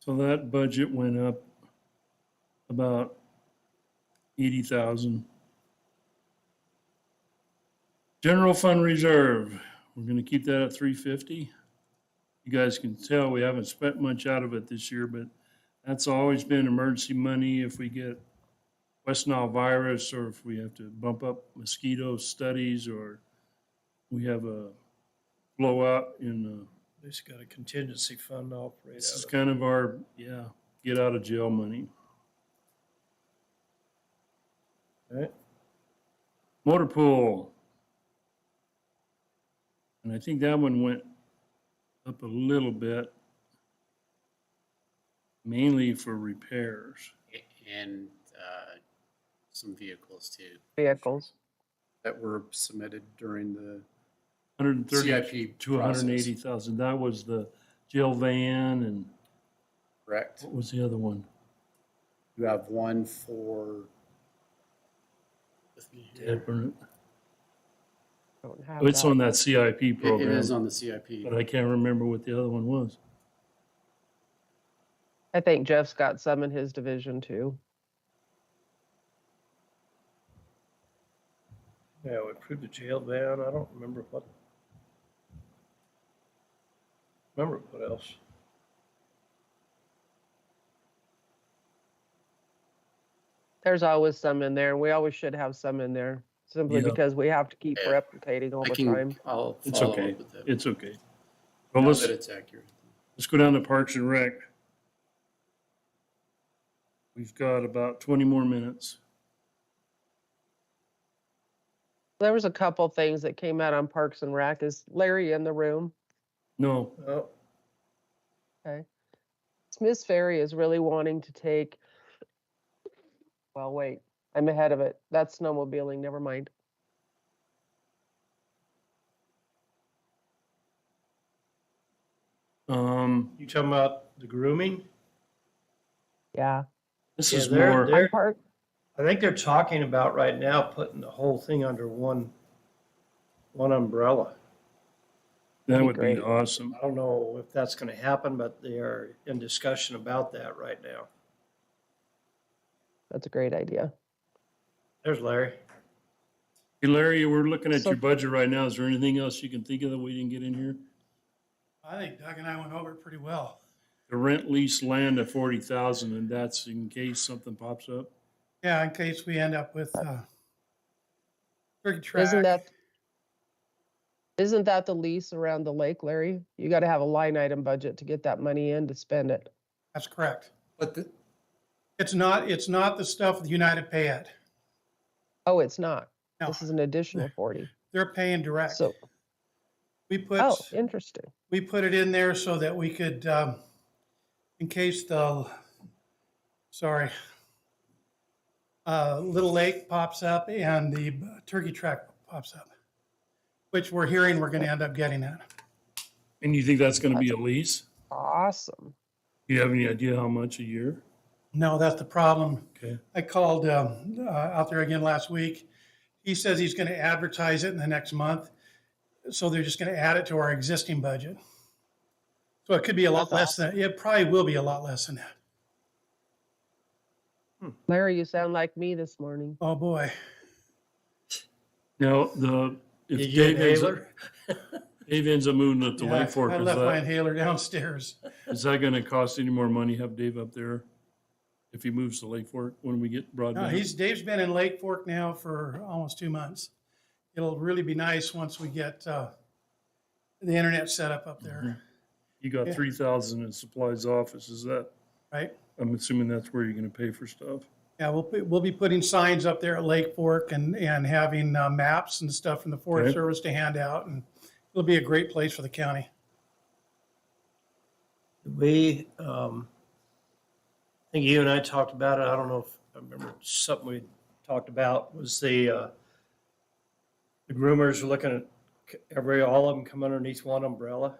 So that budget went up about eighty thousand. General fund reserve, we're gonna keep that at three fifty. You guys can tell we haven't spent much out of it this year, but that's always been emergency money if we get West Nile virus or if we have to bump up mosquito studies or we have a blowout in uh At least got a contingency fund to operate this is out of. kind of our, yeah, get out of jail money. Right. Motor pool. And I think that one went up a little bit. Mainly for repairs. A- And uh, some vehicles too vehicles. that were submitted during the Hundred and thirty CIP to hundred and eighty process. thousand. That was the jail van and Correct. what was the other one? You have one for. with me here. Don't have It's that. on that CIP It it program. is on the CIP. But I can't remember what the other one was. I think Jeff's got some in his division too. Yeah, we approved the jail ban. I don't remember what. Remember what else? There's always some in there. and We always should have some in there simply Yeah. because we have to keep Yeah. replicating all I the can, time. I'll It's follow okay. up with it. It's okay. Well, Now let's, that it's accurate. let's go down to Parks and Rec. We've got about twenty more minutes. There was a couple things that came out on Parks and Rec. Is Larry in the room? No, Oh, Smith's Ferry is really wanting to take. Well, wait, I'm ahead of it. That's snowmobiling. Never mind. um, you talking about the grooming? Yeah. this Yeah, is they're- more, they're- On There- Park, I think they're talking about right now putting the whole thing under one, one umbrella. that be would be great. awesome. I don't know if that's gonna happen, but they are in discussion about that right now. that's a great idea. There's Larry. Hey Larry, we're looking at So- your budget right now. Is there anything else you can think of that we didn't get in here? I think Doug and I went over it pretty well. The rent lease land of forty thousand and that's in case something pops up. Yeah, in case we end up with, uh, big Isn't track. that? Isn't that the lease around the lake, Larry? You got to have a line item budget to get that money in to spend it. That's correct. But the, It's not, it's not the stuff with United Pay at. Oh, it's not. No, This is an additional forty. they're paying direct. So, We put, oh, interesting. we put it in there so that we could, um, in case the, sorry, uh, Little Lake pops up and the Turkey Track pops up, which we're hearing we're gonna end up getting at. And you think that's gonna be a lease? Awesome. Do you have any idea how much a year? No, that's the problem. Okay. I called um, uh, out there again last week. He says he's going to advertise it in the next month. So they're just going to add it to our existing budget. So it could be a lot That's less than, it probably will be a lot less than that. Larry, you sound like me this morning. Oh, boy. Now, the, Did if you get Dave ends up, Naylor? Dave ends up moving up to Yeah, Lake Fork, I is left my that, inhaler downstairs. is that gonna cost any more money, have Dave up there? If he moves to Lake Fork when we get No, broadband? he's, Dave's been in Lake Fork now for almost two months. It'll really be nice once we get uh, the internet set up up there, Mm-hmm. You got yeah. three thousand in supplies office, is that, right? I'm assuming that's where you're gonna pay for stuff? Yeah, we'll, put- we'll be putting signs up there at Lake Fork and, and having uh, maps and stuff from the Okay. Forest Service to hand out. And it'll be a great place for the county. We, um, I think you and I talked about it. I don't know if, I remember something we talked about was the, uh, the groomers are looking at c- every, all of them come underneath one umbrella.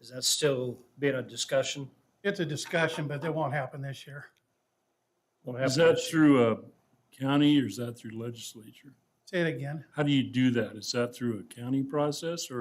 Is that still being a discussion? It's a discussion, but that won't happen this year. Won't Is happen that this year. through a county or is that through legislature? Say it again. How do you do that? Is that through a county process or